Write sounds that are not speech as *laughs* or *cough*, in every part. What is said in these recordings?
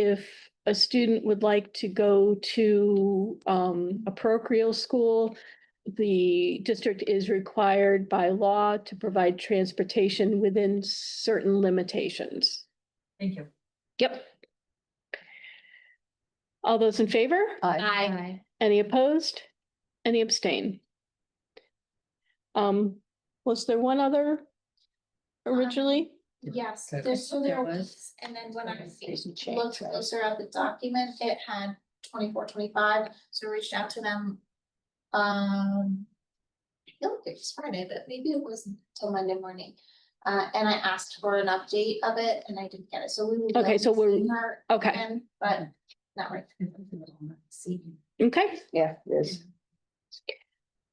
if a student would like to go to um, a parochial school, the district is required by law to provide transportation within certain limitations. Thank you. Yep. All those in favor? Aye. Any opposed? Any abstain? Um, was there one other originally? Yes, Okay. there's, so there There was, was. and then when I Organization change, looked right. closer at the document, it had twenty-four, twenty-five, so I reached out to them. Um. I feel like it was Friday, but maybe it wasn't till Monday morning, uh, and I asked for an update of it and I didn't get it, so we. would Okay, like so to we're- see her Okay, again, But not right. See. okay. Yeah, yes.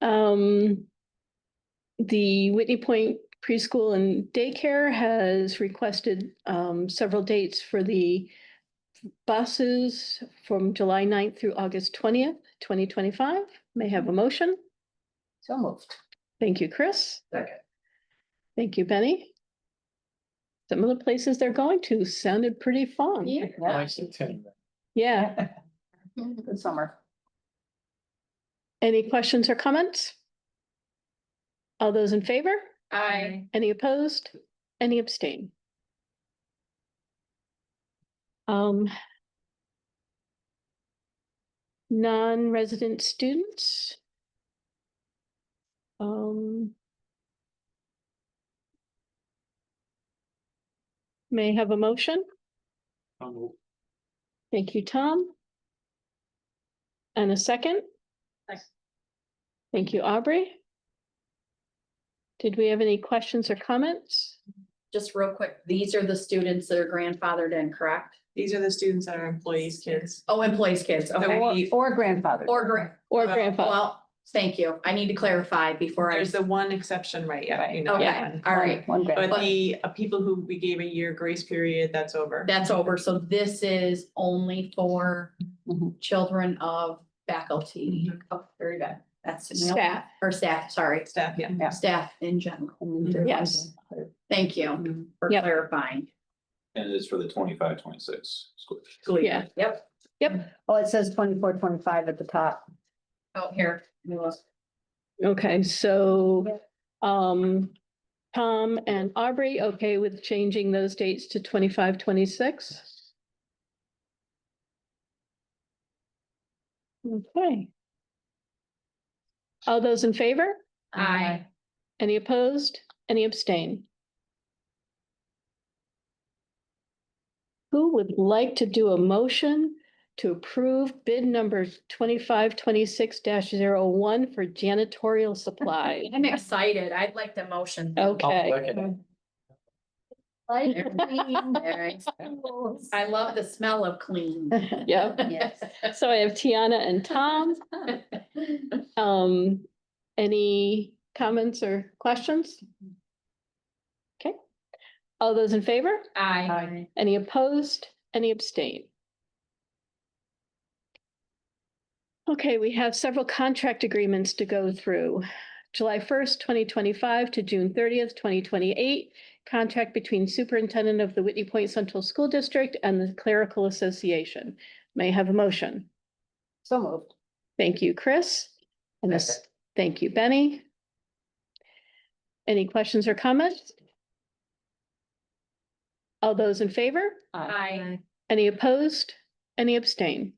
Um, the Whitney Point Preschool and Daycare has requested, um, several dates for the buses from July 9th through August twentieth, twenty twenty-five. May I have a motion. So moved. Thank you, Chris. Second. Thank you, Benny. Some of the places they're going to sounded pretty fun. Yeah. Nice to attend. Yeah. Good summer. Any questions or comments? All those in favor? I, Any opposed? Any abstain? Um. Non-resident students. Um. May I have a motion? I'll move. Thank you, Tom. And a second? Second. Thank you, Aubrey. Did we have any questions or comments? Just real quick, these are the students that are grandfathered in, correct? These are the students that are employees' kids. Oh, employees' kids, okay. Or or grandfather. Or grand, Or Uh, grandfather? well, thank you. I need to clarify before I, There's the one exception, right? Yeah, you know. okay, that one. all right. One grandfather. But the uh, people who we gave a year grace period, that's over. That's over. So this is only for Mhm. children of faculty. Mm-hmm. Oh, Very good. That's. Staff. Or staff, sorry, Staff, yeah. Yeah. staff in general. And then there was Yes. grandfather. Thank you for Yep. clarifying. And it is for the twenty-five, twenty-six school. year. School year. Yeah. Yep, Oh, it says twenty-four, twenty-five at the top. out Oh, here. Okay, so, um, Tom and Aubrey, okay with changing those dates to twenty-five, twenty-six? Okay. All those in favor? Aye. Any opposed? Any abstain? Who would like to do a motion to approve bid number twenty-five twenty-six one for janitorial *laughs* supply? I'm excited. I'd like the motion. Okay, Like Alright. I love the smell of clean. yeah. Yes. So I have Tiana and Tom. Um, any comments or questions? Okay. All those in favor? Aye. Any opposed? Any abstain? Okay, we have several contract agreements to go through. July first, twenty twenty-five to June thirtieth, twenty twenty-eight. Contract between Superintendent of the Whitney Point Central School District and the Clerical Association. May I have a motion. So moved. Thank you, Chris. And this, thank you, Benny. Any questions or comments? All those in favor? Aye. Any opposed? Any abstain?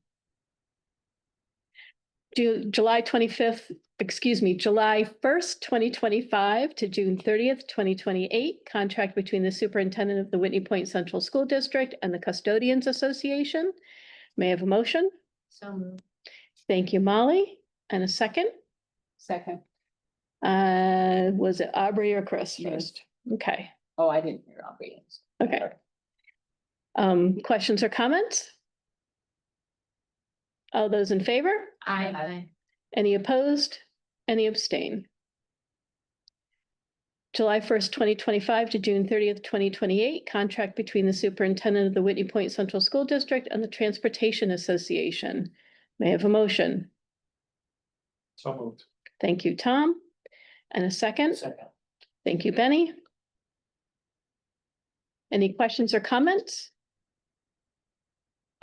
Ju- July twenty-fifth, excuse me, July first, twenty twenty-five to June thirtieth, twenty twenty-eight. Contract between the superintendent of the Whitney Point Central School District and the Custodians Association. May I have a motion? So moved. Thank you, Molly. And a second? Second. Uh, was it Aubrey or Chris Me. first? Okay, Oh, I didn't hear Aubrey. okay. Um, questions or comments? All those in favor? Aye. Any opposed? Any abstain? July first, twenty twenty-five to June thirtieth, twenty twenty-eight, contract between the superintendent of the Whitney Point Central School District and the Transportation Association. May I have a motion? So moved. Thank you, Tom. And a second? Second. Thank you, Benny. Any questions or comments?